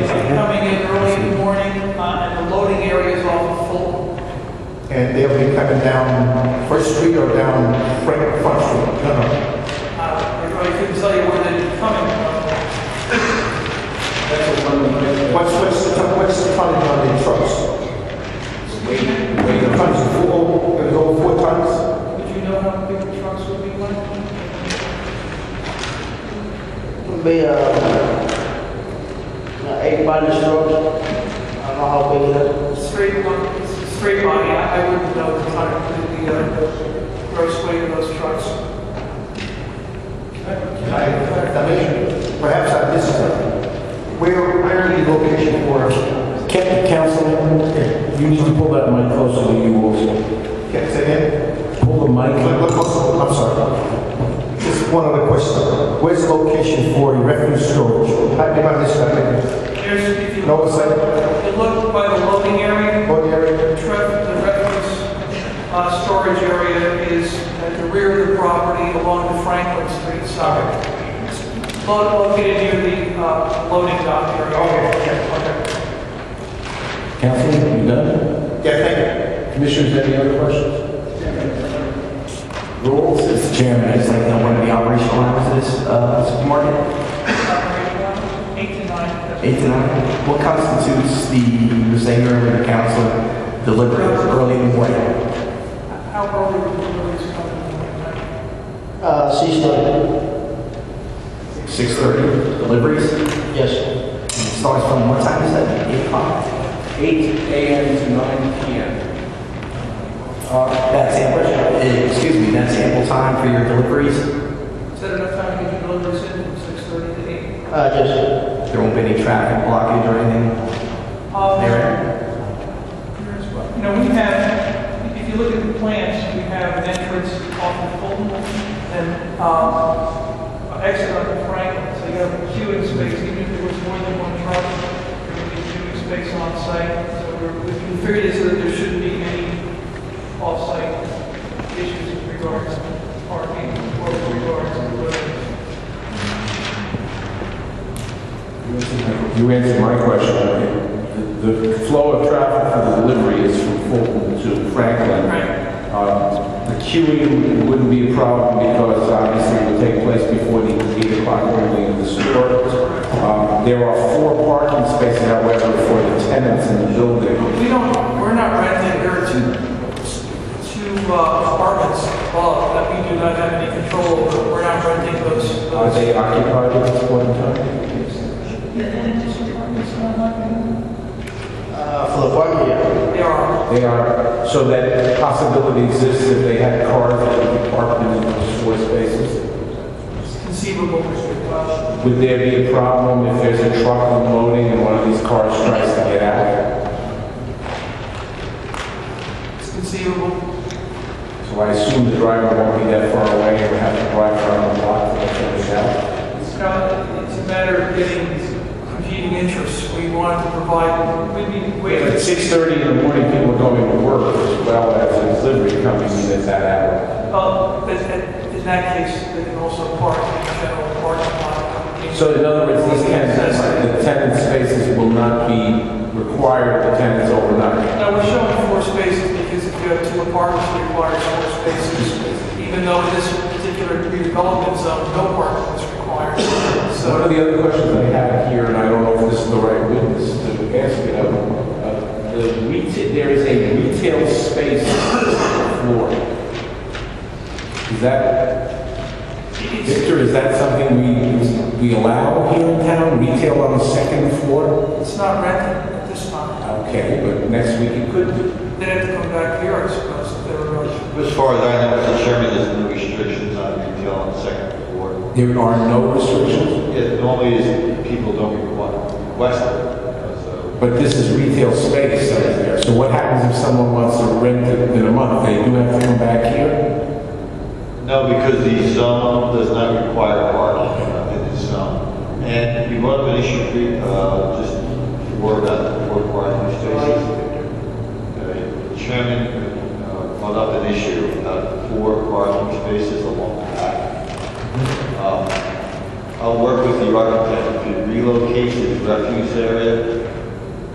uh, and they'll be coming down First Street or down Frank, Front Street? No, no. I Uh, couldn't tell you where they're coming from. That's the one we made. What's, what's the, ton- what's the tonnage on the trucks? Wait, wait, The tonnage is four, oh, it's over four tons? Would you know how big the trucks would be like? Be, uh, uh, eight by the short. I don't know how big it is. Straight line, straight body, I I wouldn't know the time, the uh, gross weight of those trucks. I, I mean, perhaps I missed it. Where, where is the location for it? Captain Councilman, you need to pull that mic closer to you also. Can I say Pull the mic. that? Look, look, look, I'm sorry. Just one other question. Where's the location for refuse storage? I think I missed that. Here's, if you No, it's like, you look by the loading area, what area? the tra- the refuse uh, storage area is at the rear of the property along the Franklin Street side. It's lo- Located near the uh, loading dock area. Okay. Councilman, you done? Yeah, thank Commissioners, any other questions? Rules? Mr. Chairman, I just like to know when the operational hours of this, uh, supermarket? Eight to nine. Eight to nine? What constitutes the, the singer and the council delivery early in the morning? How early would you release company? Uh, six thirty. Six thirty deliveries? Yes. Starts from what time is that? Eight o'clock? Eight AM to nine PM. Uh, that's ample, eh, excuse me, that's ample time for your deliveries? Is that enough time to get your deliveries in from six thirty to eight? Uh, yes. There won't be any traffic blockage or anything? Um, There. here's what- You know, we have, if you look at the plans, we have an entrance off of Fulton and, um, an exit on Franklin, so you have a queuing space, even if there was more than one truck, there would be a queuing space on site, so we're, we figured this, that there shouldn't be any off-site issues with regards to parking or with regards to deliveries. You answered my question. The the flow of traffic for the delivery is from Fulton to Franklin. Um, The queuing wouldn't be a problem because obviously it would take place before the eight o'clock opening of the store. Um, There are four parking spaces, however, for the tenants in the building. We don't, we're not renting, there are two, two uh, apartments above that we do not have any control over. We're not renting those. Are those- they occupied at this point in time? Uh, for the party, yeah. They are, They are, so that possibility exists if they had cars that would be parked in those four spaces? it's conceivable. Uh, Would there be a problem if there's a truck unloading and one of these cars tries to get out? It's conceivable. So I assume the driver won't be that far away and would have to drive around the block to finish out. It's not, it's a matter of getting competing interests. We want to provide, we need Wait, at ways. six thirty in the morning, people are going to work as well as the delivery coming in at that Well, but in in that case, they can also park in the general parking lot. hour. So in other words, these tenants, the tenant spaces will not be required for tenants overnight. Now, we're showing four spaces because if you have two apartments, it requires four spaces, even though in this particular redevelopment zone, no parking is required. So one So of the other questions I have here, and I don't know if this is the right witness to ask it of, uh, the retail, there is a retail space on the floor. Is that, Victor, is that something we, we allow here in town, retail on the second floor? it's not rented at this time. Okay, but next week you could do. They'd have to come back here, I suppose, if they were going to. As far as I know, Mr. Chairman, there's no restrictions on retail on the second floor. There are no restrictions, It normally is people don't requ- request it, you know, uh, so. but this is retail space that is there. So what happens if someone wants to rent it in a month? They do have to come back here? No, because the zone does not require parking uh, in the zone. And we brought up an issue, pre- uh, just before about the four parking spaces. Uh, the Chairman uh, brought up an issue about four parking spaces along the back. Um, I'll work with the architect to relocate the refuse area